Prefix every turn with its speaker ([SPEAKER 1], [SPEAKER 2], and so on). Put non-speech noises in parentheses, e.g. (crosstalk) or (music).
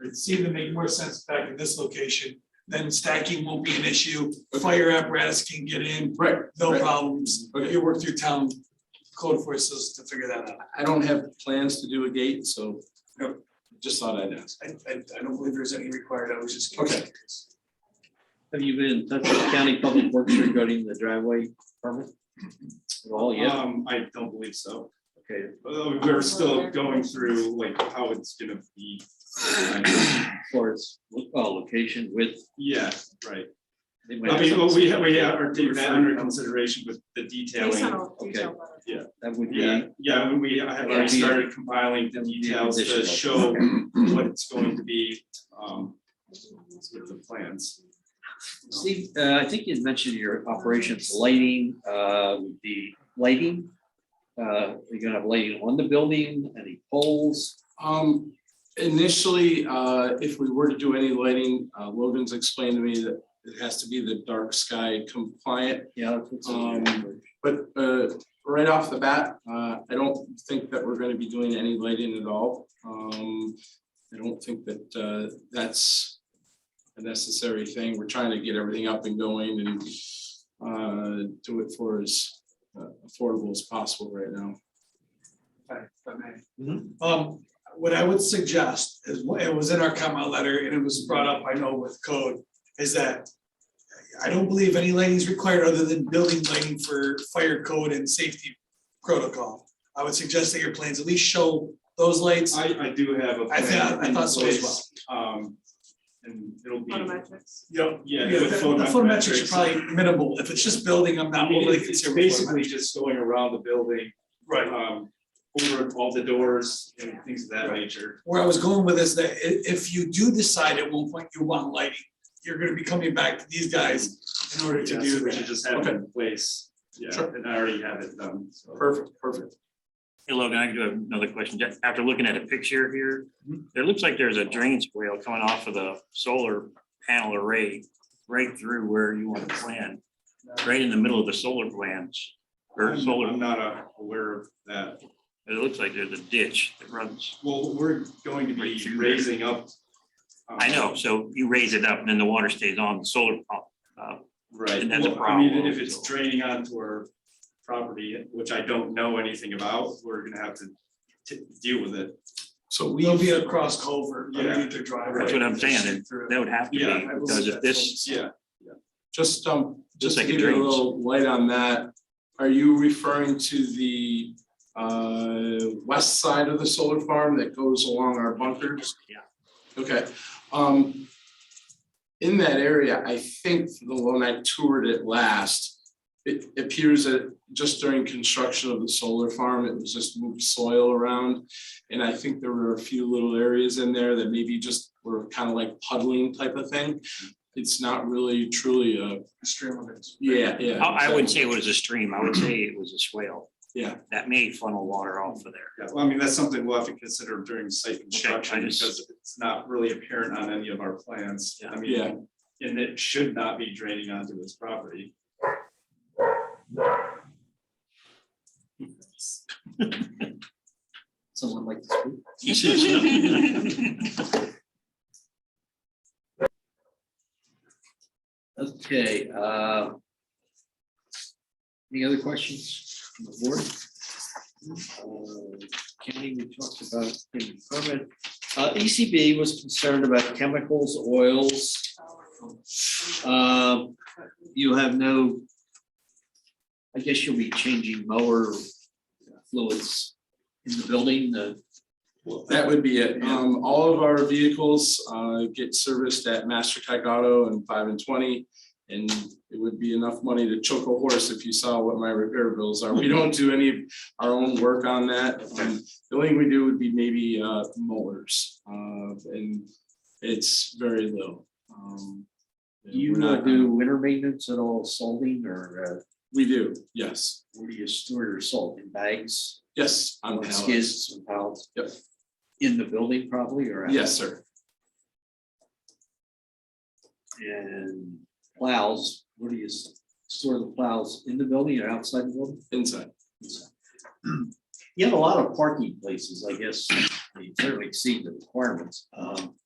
[SPEAKER 1] it seemed to make more sense back in this location. Then stacking won't be an issue, fire apparatus can get in,
[SPEAKER 2] Right,
[SPEAKER 1] no
[SPEAKER 2] Right.
[SPEAKER 1] problems,
[SPEAKER 2] Okay.
[SPEAKER 1] you work through town code enforcers to figure that out.
[SPEAKER 2] I don't have plans to do a gate, so uh,
[SPEAKER 1] Yep.
[SPEAKER 2] just thought I'd ask.
[SPEAKER 1] I, I, I don't believe there's any required, I was just. curious.
[SPEAKER 3] Have you been in touch with county public works regarding the driveway permit? At all yet?
[SPEAKER 4] Um, I don't believe so.
[SPEAKER 3] Okay,
[SPEAKER 4] Uh, We're still going through like how it's gonna be.
[SPEAKER 3] as far as, lo- oh, location with.
[SPEAKER 4] Yeah, right.
[SPEAKER 3] they might
[SPEAKER 4] I
[SPEAKER 3] have
[SPEAKER 4] mean, well, we have, we
[SPEAKER 3] something-
[SPEAKER 4] have our deep that under consideration with the
[SPEAKER 5] Based on
[SPEAKER 4] detailing.
[SPEAKER 5] all the detail letter.
[SPEAKER 3] That would be,
[SPEAKER 4] Yeah,
[SPEAKER 3] that
[SPEAKER 4] yeah, we- we, I have
[SPEAKER 3] Yeah.
[SPEAKER 4] already started compiling the
[SPEAKER 3] That'd be an
[SPEAKER 4] details to
[SPEAKER 3] additional.
[SPEAKER 4] show what it's going to be, um, with the plans.
[SPEAKER 3] Steve, uh, I think you mentioned your operations lighting, uh, would be lighting. Uh, you're gonna have lighting on the building, any poles,
[SPEAKER 2] Um, initially, uh, if we were to do any lighting, uh, Logan's explained to me that it has to be the dark sky compliant.
[SPEAKER 3] yeah. that's what's in there.
[SPEAKER 2] Um, but, uh, right off the bat, uh, I don't think that we're gonna be doing any lighting at all. Um, I don't think that, uh, that's a necessary thing. We're trying to get everything up and going and, uh, do it for as uh, affordable as possible right now.
[SPEAKER 1] If I may. Um, what I would suggest is, what- it was in our comment letter and it was brought up, I know with code, is that. I don't believe any lighting is required other than building lighting for fire code and safety protocol. I would suggest that your plans at least show those lights.
[SPEAKER 4] I, I do have a
[SPEAKER 1] I
[SPEAKER 4] plan
[SPEAKER 1] thought, I
[SPEAKER 4] in
[SPEAKER 1] thought so as well.
[SPEAKER 4] place, um, and it'll be.
[SPEAKER 5] Photometrics.
[SPEAKER 1] Yep.
[SPEAKER 4] Yeah,
[SPEAKER 1] Yeah, the
[SPEAKER 4] with
[SPEAKER 1] the photometrics are
[SPEAKER 4] photometrics.
[SPEAKER 1] probably minimal. If it's just building, I'm
[SPEAKER 4] I
[SPEAKER 1] not
[SPEAKER 4] mean,
[SPEAKER 1] overly
[SPEAKER 4] it's it's
[SPEAKER 1] concerned with
[SPEAKER 4] basically
[SPEAKER 1] photometrics.
[SPEAKER 4] just going around the building,
[SPEAKER 1] Right.
[SPEAKER 4] um, over all the doors and things of that nature.
[SPEAKER 1] Where I was going with is that i- if you do decide at one point you want lighting, you're gonna be coming back to these guys in order to
[SPEAKER 4] Yeah,
[SPEAKER 1] do
[SPEAKER 4] so we should
[SPEAKER 1] that.
[SPEAKER 4] just have it in place, yeah,
[SPEAKER 2] Sure.
[SPEAKER 4] and I already have it done, so.
[SPEAKER 2] Perfect, perfect.
[SPEAKER 6] Hey Logan, I do have another question. Just After looking at a picture here, there looks like there's a drainage rail coming off of the solar panel array right through where you want to plant, right in the middle of the solar plants. Or
[SPEAKER 4] I'm
[SPEAKER 6] solar,
[SPEAKER 4] I'm not uh, aware of that.
[SPEAKER 6] it looks like there's a ditch that runs.
[SPEAKER 4] Well, we're going to
[SPEAKER 6] Right
[SPEAKER 4] be
[SPEAKER 6] through there.
[SPEAKER 4] raising up. um,
[SPEAKER 6] I know, so you raise it up and then the water stays on the solar pump. uh,
[SPEAKER 4] Right,
[SPEAKER 6] And that's a
[SPEAKER 4] well, I mean,
[SPEAKER 6] problem,
[SPEAKER 4] if it's
[SPEAKER 6] so.
[SPEAKER 4] draining onto our property, which I don't know anything about, we're gonna have to t- deal with it.
[SPEAKER 2] So we.
[SPEAKER 1] There'll be a cross culvert
[SPEAKER 4] Yeah.
[SPEAKER 1] underneath their driveway.
[SPEAKER 6] That's what I'm saying,
[SPEAKER 1] Straight through.
[SPEAKER 6] That would have to
[SPEAKER 4] Yeah,
[SPEAKER 6] be,
[SPEAKER 1] I will
[SPEAKER 6] because if
[SPEAKER 1] suggest
[SPEAKER 6] this,
[SPEAKER 4] Yeah,
[SPEAKER 2] Just, um, just to
[SPEAKER 6] like a
[SPEAKER 2] give you a
[SPEAKER 6] drains.
[SPEAKER 2] little light on that, are you referring to the, uh, west side of the solar farm that goes along our bunkers?
[SPEAKER 6] Yeah.
[SPEAKER 2] Okay, um, in that area, I think the one I toured it last, it appears that just during construction of the solar farm, it was just moved soil around. And I think there were a few little areas in there that maybe just were kind of like puddling type of thing. It's not really truly a
[SPEAKER 1] Stream of it.
[SPEAKER 2] yeah, yeah.
[SPEAKER 6] I I
[SPEAKER 2] exactly.
[SPEAKER 6] wouldn't say it was a stream, I would say it was a swale.
[SPEAKER 2] Yeah.
[SPEAKER 6] That may funnel water off of there.
[SPEAKER 4] (laughs)
[SPEAKER 6] (laughs)
[SPEAKER 4] Yeah, well, I mean, that's something we'll have to consider during site construction
[SPEAKER 6] just-
[SPEAKER 4] because it's not really apparent on any of our plans. I
[SPEAKER 2] Yeah.
[SPEAKER 4] mean, and it should not be draining onto this property.
[SPEAKER 3] Someone like to speak?
[SPEAKER 6] He says no.
[SPEAKER 3] Okay, uh. Any other questions from the board? Uh, Kenny, we talked about the permit. Uh, ECB was concerned about chemicals, oils. Um, you have no. I guess you'll be changing mower fluids in the building, Uh, the.
[SPEAKER 2] That would be it. Um, all of our vehicles, uh, get serviced at Master Tech Auto and five and twenty. And it would be enough money to choke a horse if you saw what my repair bills are. We don't do any of our own work on that. Um, The only thing we do would be maybe, uh, mowers, uh, and it's very little. Um,
[SPEAKER 3] Do you
[SPEAKER 2] we're
[SPEAKER 3] uh,
[SPEAKER 2] not-
[SPEAKER 3] do winter maintenance at all, salting or uh,
[SPEAKER 2] We do, yes,
[SPEAKER 3] where do you store your salt in bags?
[SPEAKER 2] yes, on
[SPEAKER 3] on
[SPEAKER 2] pallets.
[SPEAKER 3] Skids and pallets?
[SPEAKER 2] Yep.
[SPEAKER 3] In the building probably or? out?
[SPEAKER 2] Yes, sir.
[SPEAKER 3] And plows, where do you s- store the plows in the building or outside the building?
[SPEAKER 2] Inside.
[SPEAKER 3] You have a lot of parking places, I guess. You certainly exceed the requirements. Um,